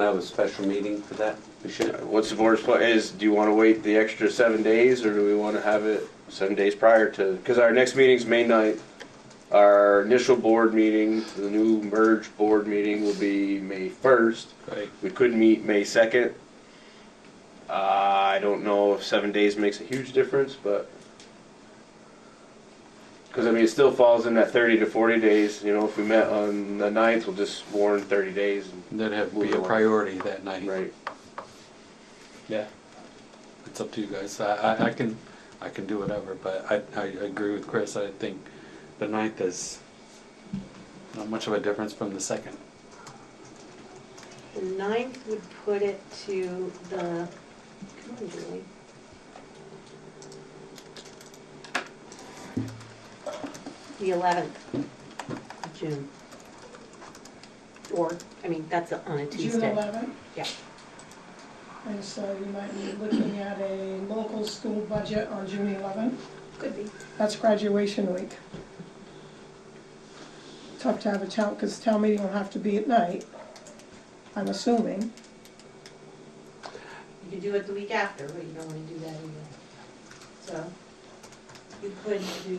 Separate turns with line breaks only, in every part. Have a special meeting for that, we should.
What's the board's plan, is, do you wanna wait the extra seven days, or do we wanna have it seven days prior to, cause our next meeting's May ninth. Our initial board meeting, the new merged board meeting will be May first,
Right.
we could meet May second. Uh, I don't know if seven days makes a huge difference, but. Cause I mean, it still falls in that thirty to forty days, you know, if we met on the ninth, we'll just warn thirty days, and-
That'd have to be
Move it
a
along.
priority that night.
right?
Yeah. It's up to you guys. I, I, I can, I can do whatever, but I, I agree with Chris. I think the ninth is not much of a difference from the second.
The ninth would put it to the, come on Julie. The eleventh of June. Or, I mean, that's on a
June
Tuesday.
eleventh.
Yeah.
And so you might be looking at a local school budget on June eleventh.
Could be.
That's graduation week. Tough to have a town, because town meeting will have to be at night, I'm assuming.
You could do it the week after, but you don't wanna do that either. So, you could do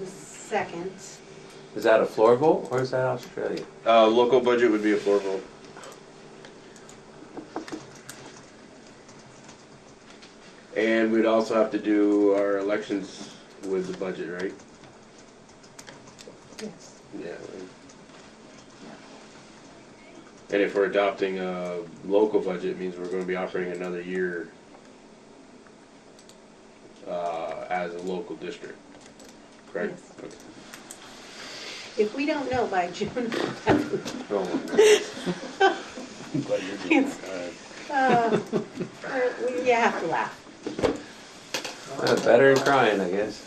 the second.
Is that a floor vote or is that Australia?
Uh, local budget would be a floor vote. And we'd also have to do our elections with the budget, right?
Yes.
Yeah. And if we're adopting a local budget, it means we're gonna be operating another year uh, as a local district, correct?
If we don't know by June 11th,
Okay.
Uh, we- You have to laugh.
Uh, Better than crying, I guess.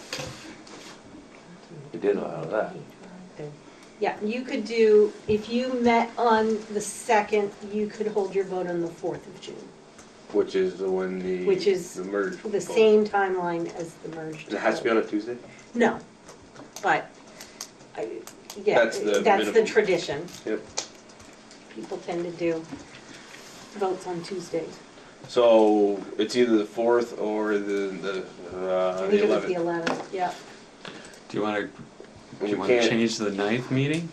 We did a lot of that.
Yeah, you could do, if you met on the 2nd, you could hold your vote on the 4th of June.
Which is the one the.
Which is
The merge.
The same timeline as the merged.
It has to be on a Tuesday?
No, but, I- yeah,
That's the
that's the
minimum.
tradition.
Yep.
People tend to do votes on Tuesdays.
So it's either the fourth or the the
I
uh,
think
the
it was the
eleventh.
11th, yeah.
Do you wanna, do
We
you wanna
can't-
change the ninth meeting?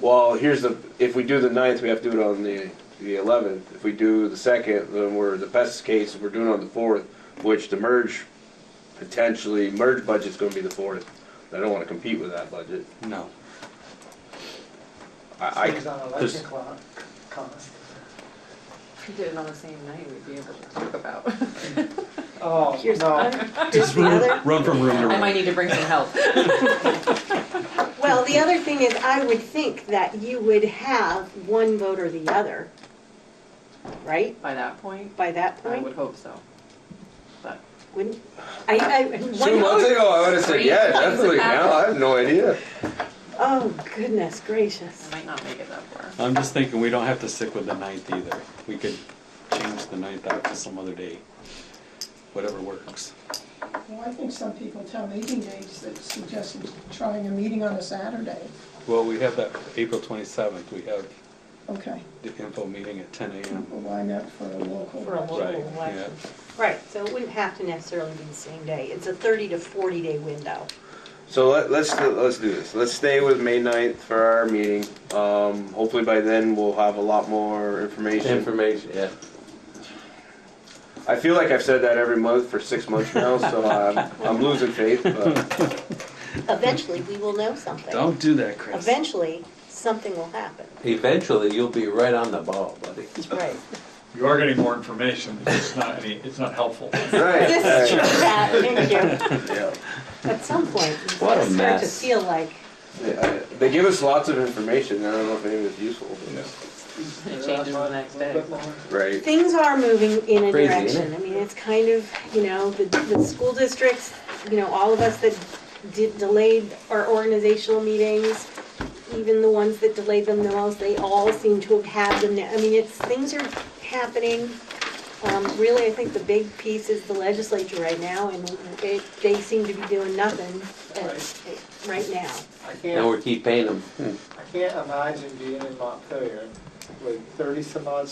Well, here's the if we do the ninth, we have to do it on the the eleventh. If we do the second, then we're the best case. We're doing it on the fourth, which the merge potentially merge budget's going to be the fourth. I don't want to compete with that budget.
No.
I,
It's on
there's-
election clock, cost.
If we did it on the same night, we'd be able to talk about.
Oh,
Here's the
no,
other, here's
Just
the other.
run, run from room to
I might
room.
need to bring some help.
Well, the other thing is, I would think that you would have one vote or the other, right?
By that point,
By that
I would
point,
hope so. But
wouldn't, I, I,
two
one
months
vote?
ago, I would have said yeah, definitely. Now I have no idea.
Oh, goodness gracious.
I might not make it that far.
I'm just thinking, we don't have to stick with the ninth either. We could change the ninth out to some other day, whatever works.
Well, I think some people tell meeting dates that suggest trying a meeting on a Saturday.
Well, we have that April twenty-seventh, we have
Okay,
the info meeting at ten AM.
well, why not for a local?
For a
budget?
Right, yeah.
Right, so it wouldn't have to necessarily be the same day. It's a thirty to forty day window.
So let, let's let's do this. Let's stay with May 9th for our meeting. Um, hopefully by then we'll have a lot more information.
Information, yeah.
I feel like I've said that every month for six months now, so I'm, I'm losing faith. But
Eventually, we will know something.
Don't do that, Chris.
Eventually, something will happen.
Eventually, you'll be right on the ball, buddy.
Right.
You are getting more information, but it's not any, it's not helpful.
right,
This is true,
right,
Pat, thank you.
yeah.
At some point, you
What a
start to
mess.
feel like,
Yeah, I- They give us lots of information. I don't know if any of it's useful. but-
It changes the next day.
Right.
things are moving in a
Crazy,
direction.
isn't
I mean, it's kind of, you know, the, the school districts, you know, all of us that did, delayed our organizational meetings, even the ones that delayed them the most, they all seem to have had them now. I mean, it's, things are happening. Um, really, I think the big piece is the legislature right now, and they, they seem to be doing nothing at- right now.
I
And
can't,
we keep paying them.
I can't imagine being in Montpelier like thirty some odd